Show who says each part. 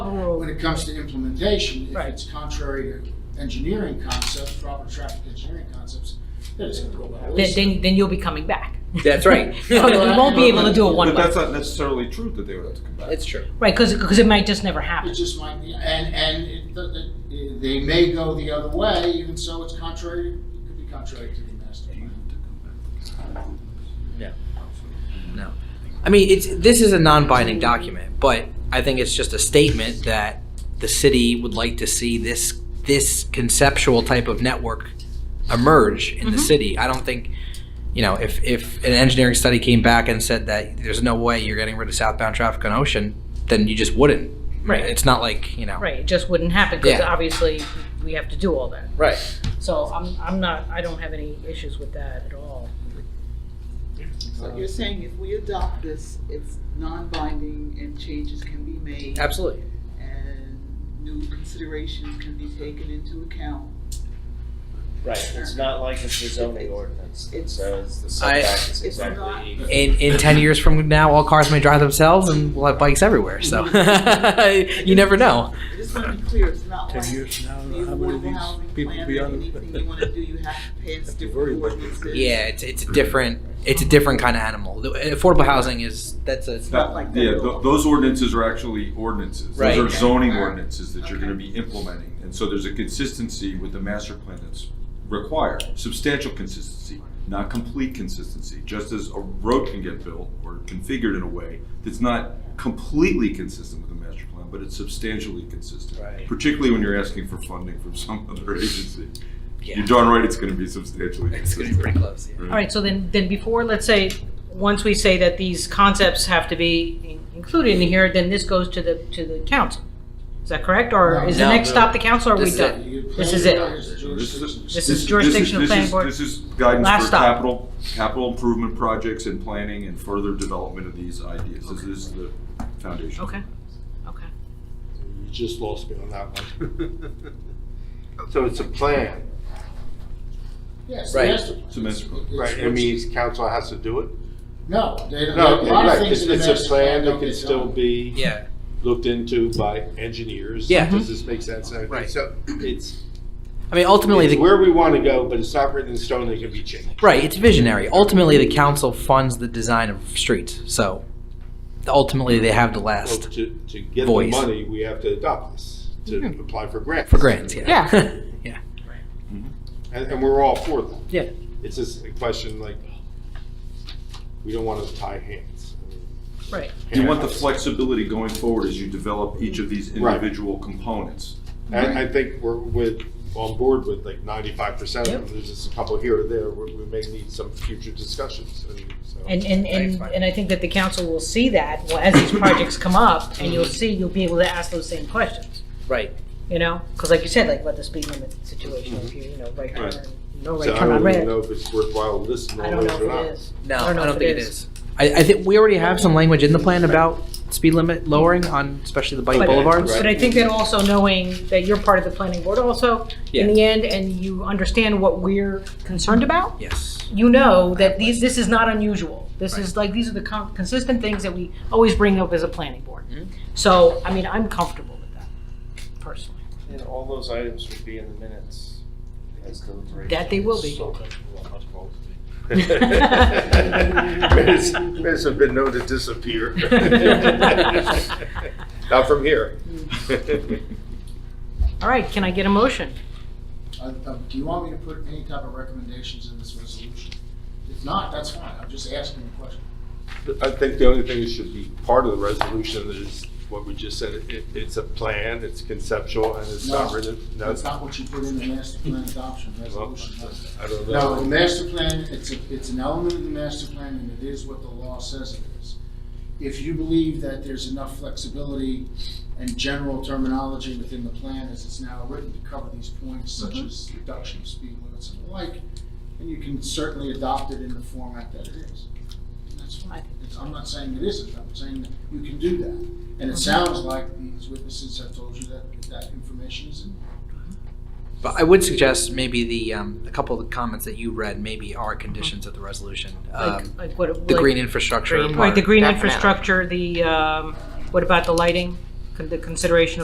Speaker 1: it comes to implementation, if
Speaker 2: Right.
Speaker 1: it's contrary to engineering concepts, proper traffic engineering concepts, then it's gonna go by the
Speaker 2: then,
Speaker 1: wayside.
Speaker 2: then, then you'll be coming back.
Speaker 3: That's right.
Speaker 2: You won't be able to do it one
Speaker 4: But
Speaker 2: way.
Speaker 4: that's not necessarily true that they would have to come back.
Speaker 3: It's true.
Speaker 2: Right, because, it might just never
Speaker 1: It
Speaker 2: happen.
Speaker 1: just might be, and, and it- the- the- they may go the other way, even so it's contrary, it could be contrary to the master plan.
Speaker 3: No. No. I mean, it's, this is a non-binding document, but I think it's just a statement that the city would like to see this, this conceptual type of network emerge
Speaker 2: Mm-hmm.
Speaker 3: in the city. I don't think, you know, if, if an engineering study came back and said that there's no way you're getting rid of southbound traffic on Ocean, then you just wouldn't.
Speaker 2: Right.
Speaker 3: It's not like, you know.
Speaker 2: Right, it just wouldn't happen because
Speaker 3: Yeah.
Speaker 2: obviously we have to do all that.
Speaker 3: Right.
Speaker 2: So I'm, I'm not, I don't have any issues with that at all.
Speaker 5: So you're saying if we adopt this, it's non-binding and changes can be made?
Speaker 3: Absolutely.
Speaker 5: And new considerations can be taken into account?
Speaker 6: Right, it's not like it's the zoning ordinance that
Speaker 5: It's-
Speaker 6: says the
Speaker 3: I-
Speaker 6: setback is
Speaker 5: It's not-
Speaker 6: exactly equal.
Speaker 3: in, in 10 years from now, all cars may drive themselves and we'll have bikes everywhere. So you never know.
Speaker 5: I just want to be clear, it's not like
Speaker 7: Ten
Speaker 5: the
Speaker 7: years from now, how many of
Speaker 5: affordable housing
Speaker 7: these people
Speaker 5: plan,
Speaker 7: be
Speaker 5: or
Speaker 7: on it?
Speaker 5: anything you want to do, you have to pass
Speaker 7: Have to worry
Speaker 5: different
Speaker 7: about it.
Speaker 5: ordinances.
Speaker 3: Yeah, it's, it's a different it's a different kind of animal. The- Affordable housing is that's a
Speaker 5: not like that
Speaker 4: Yeah,
Speaker 5: at all.
Speaker 4: tho- those ordinances are actually ordinances.
Speaker 3: Right.
Speaker 4: Those are zoning
Speaker 5: Okay.
Speaker 4: ordinances that you're gonna be implementing. And so there's a consistency with the master plan that's required, substantial consistency, not complete consistency. Just as a road can get built or configured in a way that's not completely consistent with the master plan, but it's substantially consistent.
Speaker 3: Right.
Speaker 4: Particularly when you're asking for funding from some other agency.
Speaker 3: yeah,
Speaker 4: You're darn right it's gonna be substantially
Speaker 3: it's
Speaker 4: consistent.
Speaker 3: gonna be pretty close. Yeah.
Speaker 2: All right, so then, then before, let's say, once we say that these concepts have to be in- included in here, then this goes to the, to the council. Is that correct? Or is the
Speaker 3: No.
Speaker 2: next stop the council or are we
Speaker 3: This is it.
Speaker 2: done?
Speaker 1: You-
Speaker 2: This is it.
Speaker 4: This is-
Speaker 2: This is jurisdictional
Speaker 4: this is-
Speaker 2: planning board.
Speaker 4: This is guidance
Speaker 2: Last
Speaker 4: for
Speaker 2: stop.
Speaker 4: capital, capital improvement projects and planning and further development of these ideas. This is the foundation.
Speaker 2: Okay, okay.
Speaker 7: You just lost me on that one.
Speaker 8: So it's a plan,
Speaker 1: Yes,
Speaker 3: Right.
Speaker 1: master plan.
Speaker 4: It's a master plan.
Speaker 1: It's-
Speaker 8: right? It means council has to do it?
Speaker 1: No, they don't,
Speaker 8: No,
Speaker 1: a lot of
Speaker 8: right,
Speaker 1: things
Speaker 8: it's,
Speaker 1: in the
Speaker 8: it's a
Speaker 1: master plan
Speaker 8: plan
Speaker 1: don't
Speaker 8: that
Speaker 1: get
Speaker 8: can still
Speaker 1: done.
Speaker 8: be
Speaker 3: Yeah,
Speaker 8: looked into by engineers.
Speaker 3: Yeah.
Speaker 8: Does this make sense? Okay,
Speaker 3: Right.
Speaker 8: So it's,
Speaker 3: I mean ultimately
Speaker 8: it's
Speaker 3: the
Speaker 8: where we want to go, but it's not written in stone, it can be changed.
Speaker 3: right it's visionary. Ultimately the council funds the design of streets, so ultimately they have the
Speaker 8: So
Speaker 3: last
Speaker 8: To, to get the
Speaker 3: Voice. Mm-hmm.
Speaker 8: money, we have to adopt this, to apply for grants.
Speaker 3: for grants. Yeah, yeah, yeah.
Speaker 8: And, and we're all for that.
Speaker 3: Yeah.
Speaker 8: It's just a question like, we don't want to tie hands.
Speaker 2: Right,
Speaker 4: You want the flexibility going forward as you develop each of these
Speaker 8: Right.
Speaker 4: individual components.
Speaker 8: I, I think we're with, on board with like ninety-five percent of
Speaker 2: Yep.
Speaker 8: them, there's just a couple here or there, we, we may need some future discussions, I mean, so.
Speaker 2: and, and,
Speaker 3: Thanks,
Speaker 2: and,
Speaker 3: Mike.
Speaker 2: and I think that the council will see that well, as these projects come up, and you'll see, you'll be able to ask those same questions,
Speaker 3: Right.
Speaker 2: you know? Because like you said, like about the speed limit situation, if you, you know, right
Speaker 8: Right.
Speaker 2: turn, no
Speaker 8: So
Speaker 2: right
Speaker 8: I
Speaker 2: turn on
Speaker 8: don't even
Speaker 2: red.
Speaker 8: know if it's worthwhile listening
Speaker 2: I
Speaker 8: to
Speaker 2: don't
Speaker 8: all
Speaker 2: know
Speaker 8: those
Speaker 2: if
Speaker 8: or
Speaker 2: it
Speaker 8: not.
Speaker 2: is.
Speaker 3: No, I don't think it is. I, I think we already have some language in the plan about speed limit lowering on especially the bike
Speaker 2: But-
Speaker 3: boulevards.
Speaker 2: But I think that also knowing that you're part of the planning board also, in
Speaker 3: Yeah.
Speaker 2: the end, and you understand what we're concerned about,
Speaker 3: Yes.
Speaker 2: you know that these, this is not unusual. This is like, these are the con- consistent things that we always bring up as a planning board.
Speaker 3: Mm-hmm.
Speaker 2: So, I mean, I'm comfortable with that personally.
Speaker 6: And all those items would be in the minutes as deliberation.
Speaker 2: That they will be.
Speaker 8: Minutes minutes have been known to disappear. Not from here.
Speaker 1: Mm.
Speaker 2: All right, can I get a motion?
Speaker 1: Uh, uh, Do you want me to put any type of recommendations in this resolution? If not, that's fine, I'm just asking a question.
Speaker 8: I think the only thing that should be part of the resolution is what we just said, it, it's a plan, it's conceptual, and it's not
Speaker 1: No,
Speaker 8: written, no,
Speaker 1: That's not what you put in the master plan adoption
Speaker 8: well,
Speaker 1: resolution. that's-
Speaker 8: I don't
Speaker 1: No, the
Speaker 8: know.
Speaker 1: master plan, it's, a- it's an element of the master plan, and it is what the law says it is. If you believe that there's enough flexibility and general terminology within the plan as it's now written to cover these points, such as reduction of speed limits and the like, then you can certainly adopt it in the format that it is. And that's fine. It's- I'm not saying it isn't, I'm saying that you can do that. And it sounds like these witnesses have told you that that information is in.
Speaker 3: But I would suggest maybe the, um, a couple of the comments that you read maybe are conditions of the resolution.
Speaker 2: Like,
Speaker 3: Um,
Speaker 2: like what?
Speaker 3: The
Speaker 2: like-
Speaker 3: green infrastructure
Speaker 2: Right,
Speaker 3: part.
Speaker 2: the green
Speaker 3: Definitely.
Speaker 2: infrastructure, the, um, what about the lighting? Con- The consideration